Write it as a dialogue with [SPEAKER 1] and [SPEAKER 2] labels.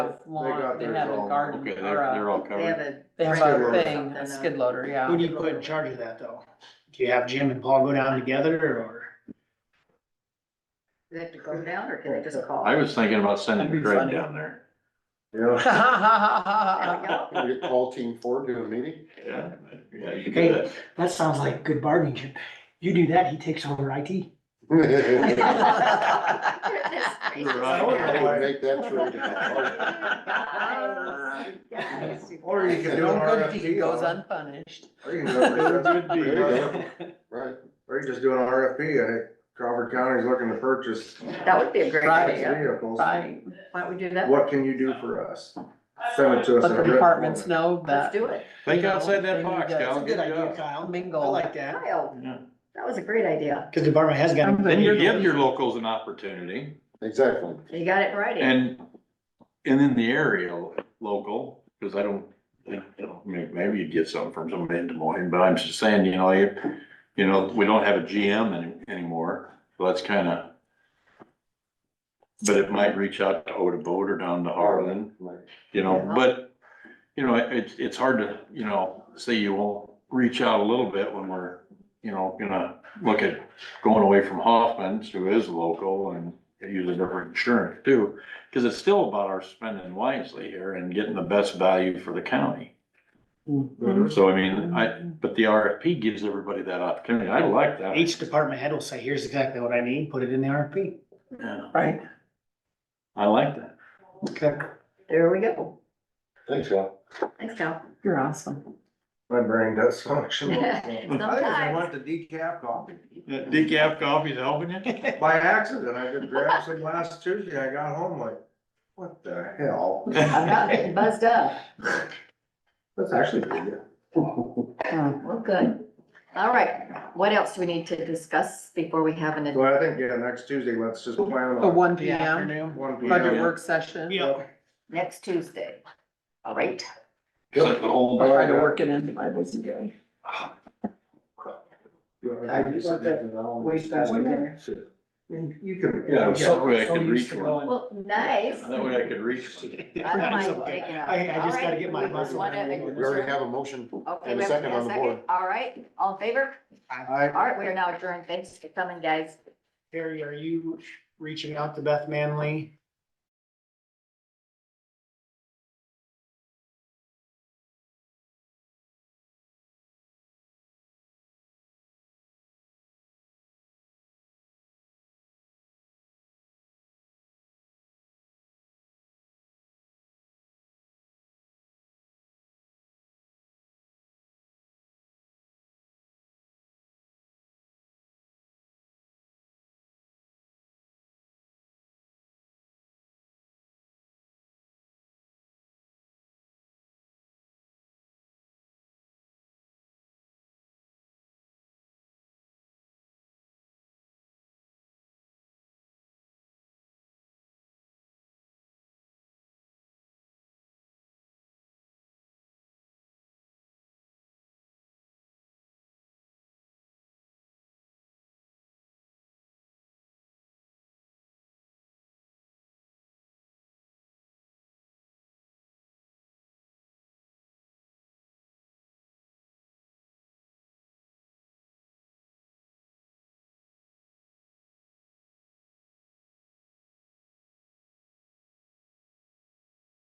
[SPEAKER 1] lawn,
[SPEAKER 2] got
[SPEAKER 1] they
[SPEAKER 2] theirs
[SPEAKER 1] have a
[SPEAKER 2] all-
[SPEAKER 1] garden,
[SPEAKER 3] Okay, they're,
[SPEAKER 1] or
[SPEAKER 3] they're
[SPEAKER 1] a,
[SPEAKER 3] all
[SPEAKER 4] They have
[SPEAKER 3] covered.
[SPEAKER 4] a.
[SPEAKER 1] they have
[SPEAKER 2] Skid
[SPEAKER 1] a
[SPEAKER 2] loader.
[SPEAKER 1] thing, a skid
[SPEAKER 4] load.
[SPEAKER 1] loader,
[SPEAKER 5] Who
[SPEAKER 1] yeah.
[SPEAKER 5] do you put in charge of that though? Do you have Jim and Paul go down together or?
[SPEAKER 4] They have to go down or can they just call?
[SPEAKER 3] I was thinking about sending
[SPEAKER 1] That'd be
[SPEAKER 3] Craig
[SPEAKER 1] funny.
[SPEAKER 3] down there.
[SPEAKER 2] Yeah,
[SPEAKER 4] There we go.
[SPEAKER 2] we get call team four to a meeting.
[SPEAKER 3] Yeah, yeah, you could
[SPEAKER 5] Hey.
[SPEAKER 3] do that.
[SPEAKER 5] That sounds like good bargaining chip. You do that, he takes over IT.
[SPEAKER 2] I
[SPEAKER 4] Goodness gracious.
[SPEAKER 2] would make that trade.
[SPEAKER 4] Guys, guys, you
[SPEAKER 2] Or you
[SPEAKER 4] guys.
[SPEAKER 2] could do
[SPEAKER 1] No
[SPEAKER 2] an
[SPEAKER 1] good deed
[SPEAKER 2] RFP
[SPEAKER 1] goes
[SPEAKER 2] on it.
[SPEAKER 1] unpunished.
[SPEAKER 2] Or you can go for that.
[SPEAKER 6] Could be,
[SPEAKER 2] There you
[SPEAKER 6] right?
[SPEAKER 2] go. Right, or you just do an RFP, I think Crawford County's looking to purchase
[SPEAKER 4] That would be a great
[SPEAKER 1] Right.
[SPEAKER 2] these
[SPEAKER 4] idea.
[SPEAKER 2] vehicles.
[SPEAKER 1] Right,
[SPEAKER 4] Why don't we do that?
[SPEAKER 2] What can you do for us? Send it to us.
[SPEAKER 1] let
[SPEAKER 2] in a
[SPEAKER 1] the
[SPEAKER 2] written
[SPEAKER 1] departments
[SPEAKER 2] format.
[SPEAKER 1] know
[SPEAKER 4] Let's
[SPEAKER 1] that
[SPEAKER 4] do it.
[SPEAKER 3] Think outside that box,
[SPEAKER 1] That's
[SPEAKER 5] That's
[SPEAKER 3] Cal.
[SPEAKER 5] a good idea,
[SPEAKER 3] job.
[SPEAKER 5] Kyle. I
[SPEAKER 1] mingle.
[SPEAKER 5] like that.
[SPEAKER 4] Kyle,
[SPEAKER 3] Yeah.
[SPEAKER 4] that was a great idea.
[SPEAKER 5] Cause the department has got.
[SPEAKER 1] I'm
[SPEAKER 3] Then you
[SPEAKER 1] You're the-
[SPEAKER 3] give your locals an opportunity
[SPEAKER 2] Exactly.
[SPEAKER 4] You got it right.
[SPEAKER 3] and, and in the area local, because I don't, think, you know, may- maybe you'd get some from somebody in Des Moines, but I'm just saying, you know, you, you know, we don't have a GM any- anymore, so that's kind of. But it might reach out to Oda Boat or down to Harlan. you know,
[SPEAKER 4] Yeah.
[SPEAKER 3] but, you know, it- it's, it's hard to, you know, say you won't reach out a little bit when we're, you know, gonna look at going away from Hoffman's, who is local and uses different insurance too, because it's still about our spending wisely here and getting the best value for the county.
[SPEAKER 1] Mm-hmm.
[SPEAKER 3] So I mean, I, but the RFP gives everybody that opportunity. I like that.
[SPEAKER 5] Each department head will say, here's exactly what I need, put it in the RFP.
[SPEAKER 3] Yeah,
[SPEAKER 1] Right,
[SPEAKER 3] I like that.
[SPEAKER 5] Okay.
[SPEAKER 4] There we go.
[SPEAKER 2] Thanks, Scott.
[SPEAKER 4] Thanks, Cal.
[SPEAKER 1] you're awesome.
[SPEAKER 2] My brain does function.
[SPEAKER 4] Yeah,
[SPEAKER 2] I just
[SPEAKER 4] Sometimes.
[SPEAKER 2] want the decaf coffee.
[SPEAKER 3] That decaf coffee's helping you?
[SPEAKER 2] By accident, I just grabbed some last Tuesday, I got home like, what the hell?
[SPEAKER 4] I'm not getting buzzed up.
[SPEAKER 2] That's actually pretty good.
[SPEAKER 4] Well, good. All right. What else do we need to discuss before we have an,
[SPEAKER 2] So I think, yeah, next Tuesday, let's just plan
[SPEAKER 1] A
[SPEAKER 2] on
[SPEAKER 1] one P M,
[SPEAKER 2] one P
[SPEAKER 1] budget
[SPEAKER 2] M.
[SPEAKER 1] work session,
[SPEAKER 5] Yeah.
[SPEAKER 4] next Tuesday? All right.
[SPEAKER 3] Set the whole-
[SPEAKER 2] All
[SPEAKER 1] try
[SPEAKER 2] right.
[SPEAKER 1] to work it into my busy day.
[SPEAKER 2] You can.
[SPEAKER 3] Yeah, I'm so glad I could reach one.
[SPEAKER 4] Well, nice.
[SPEAKER 3] That way I could reach.
[SPEAKER 4] I don't mind taking up.
[SPEAKER 5] I, I just
[SPEAKER 4] All
[SPEAKER 5] gotta
[SPEAKER 4] right.
[SPEAKER 5] get my
[SPEAKER 4] We just
[SPEAKER 5] muscle.
[SPEAKER 4] wanna-
[SPEAKER 5] memory.
[SPEAKER 2] We already have a motion.
[SPEAKER 4] Okay,
[SPEAKER 2] And a
[SPEAKER 4] we have
[SPEAKER 2] second on the board.
[SPEAKER 4] All right, all in favor?
[SPEAKER 2] I,
[SPEAKER 4] All right, we are now adjourned. Thanks for coming, guys.
[SPEAKER 5] Terry, are you reaching out to Beth Manley